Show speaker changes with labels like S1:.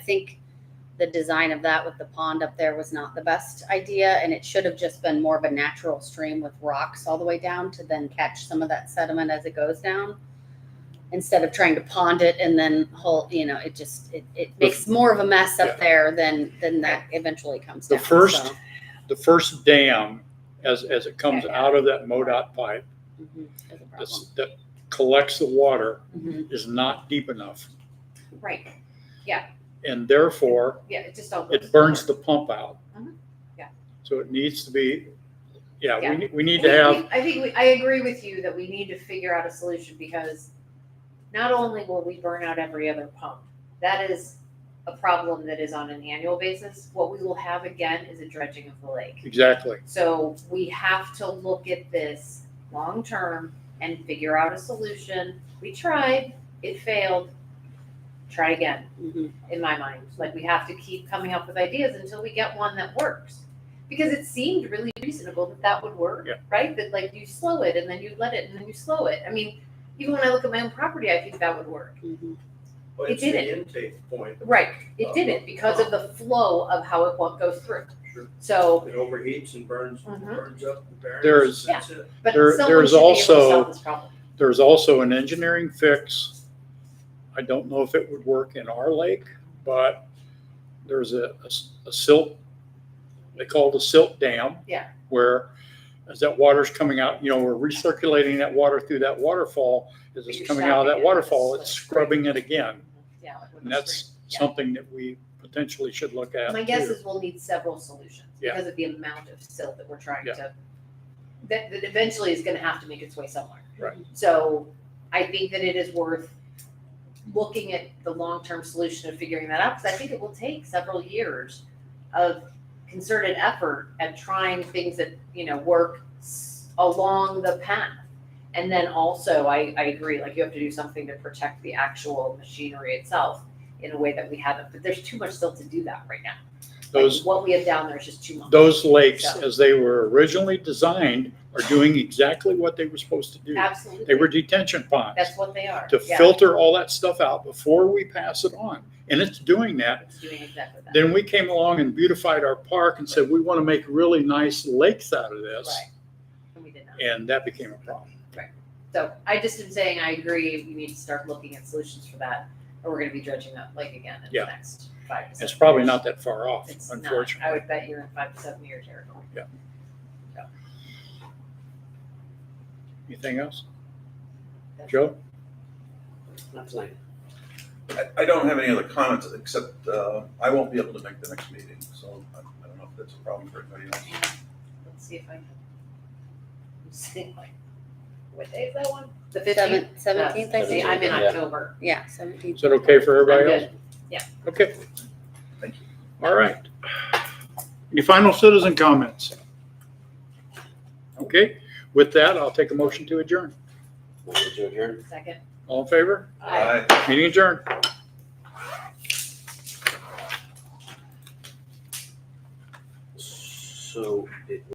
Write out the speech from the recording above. S1: I think the design of that with the pond up there was not the best idea, and it should have just been more of a natural stream with rocks all the way down to then catch some of that sediment as it goes down. Instead of trying to pond it and then whole, you know, it just, it, it makes more of a mess
S2: Yeah.
S1: up there than, than that eventually comes
S2: The
S1: down.
S2: first-
S1: so.
S2: The first dam, as, as it comes
S1: Yeah.
S2: out of that MoDOT pipe,
S1: Mhm, that's a problem.
S2: that's- that collects the water
S1: Mhm,
S2: is not deep enough.
S3: Right,
S2: And therefore,
S3: yeah, it just all.
S2: it
S3: goes
S2: burns the
S3: forward.
S2: pump out.
S3: Mhm. Yeah.
S2: So it needs to be, yeah,
S3: Yeah.
S2: we, ne- we need
S3: We-
S2: to
S3: we-
S2: have,
S3: I think, we- I agree with you that we need to figure out a solution because not only will we burn out every other pump, that is a problem that is on an annual basis. What we will have again is a dredging of the lake.
S2: exactly.
S3: So we have to look at this long-term and figure out a solution. We tried, it failed, try again.
S1: mhm.
S3: in my mind. Like we have to keep coming up with ideas until we get one that works. Because it seemed really reasonable that that would work,
S2: Yeah.
S3: right? That like you slow it and then you let it and then you slow it. I mean, even when I look at my own property, I think that would work.
S1: Mhm.
S4: But
S3: It
S4: it's the
S3: didn't.
S4: intake point.
S3: Right. It didn't because of the flow of how it wa- goes through.
S4: Sure.
S3: So,
S4: It overheats and burns,
S3: Mhm.
S4: burns up the barrens.
S2: There's-
S4: That's it.
S3: but
S2: There-
S3: someone
S2: there's
S3: should be able to
S2: also-
S3: solve this problem.
S2: There's also an engineering fix. I don't know if it would work in our lake, but there's a, a s- a silt, they call it a silt dam.
S3: Yeah.
S2: Where as that water's coming out, you know, we're recirculating that water through that waterfall. As it's
S3: You're
S2: coming out of
S3: stopping
S2: that
S3: it with a
S2: waterfall, it's
S3: slit.
S2: scrubbing it again.
S3: Yeah. like with
S2: And
S3: the
S2: that's
S3: string. Yeah.
S2: something that we potentially should look at.
S3: My guess
S2: too.
S3: is we'll need several solutions
S2: Yeah.
S3: because of the amount of silt that we're trying
S2: Yeah.
S3: to, that, that eventually is gonna have to make its way somewhere.
S2: Right.
S3: So I think that it is worth looking at the long-term solution of figuring that out, because I think it will take several years of concerted effort at trying things that, you know, work s- along the path. And then also, I, I agree, like you have to do something to protect the actual machinery itself in a way that we haven't, but there's too much still to do that right now. Like,
S2: Those,
S3: What we have down there is just too much.
S2: those lakes,
S3: So-
S2: as they were originally designed, are doing exactly what they were supposed to do. They were
S3: Absolutely,
S2: detention ponds
S3: that's what they are,
S2: to
S3: yeah,
S2: filter all that stuff out before we pass it on. And it's doing that.
S3: it's doing exactly that,
S2: Then we came along and beautified our park and said, we want to make really nice lakes out of this.
S3: right? And we did not.
S2: And that became a problem.
S3: So I just am saying, I agree, we need to start looking at solutions for that, or we're gonna be dredging that lake again in
S2: Yeah.
S3: the next five to seven years.
S2: It's probably not that far off,
S3: It's not. I
S2: unfortunately.
S3: would bet you're in five to seven year territory.
S2: Anything else?
S3: That's-
S2: Joe?
S5: I, I don't have any other comments, except, uh, I won't be able to make the next meeting, so I I don't know if that's a problem for anybody else.
S3: Let's see if I can. I'm sitting like, what day is that one? The fifteenth?
S1: Seven- Seventeenth, I
S3: See,
S1: think.
S3: I'm in
S6: Yeah.
S3: October.
S1: Yeah, seventeenth.
S2: Is that okay for everybody
S3: I'm
S2: else? Okay.
S5: Thank you.
S2: All right. Any final citizen comments? Okay, with that, I'll take a motion to adjourn.
S6: Motion to adjourn.
S3: good. Second.
S2: All in favor?
S3: Aye.
S5: Aye.
S2: Meeting adjourned.
S6: So it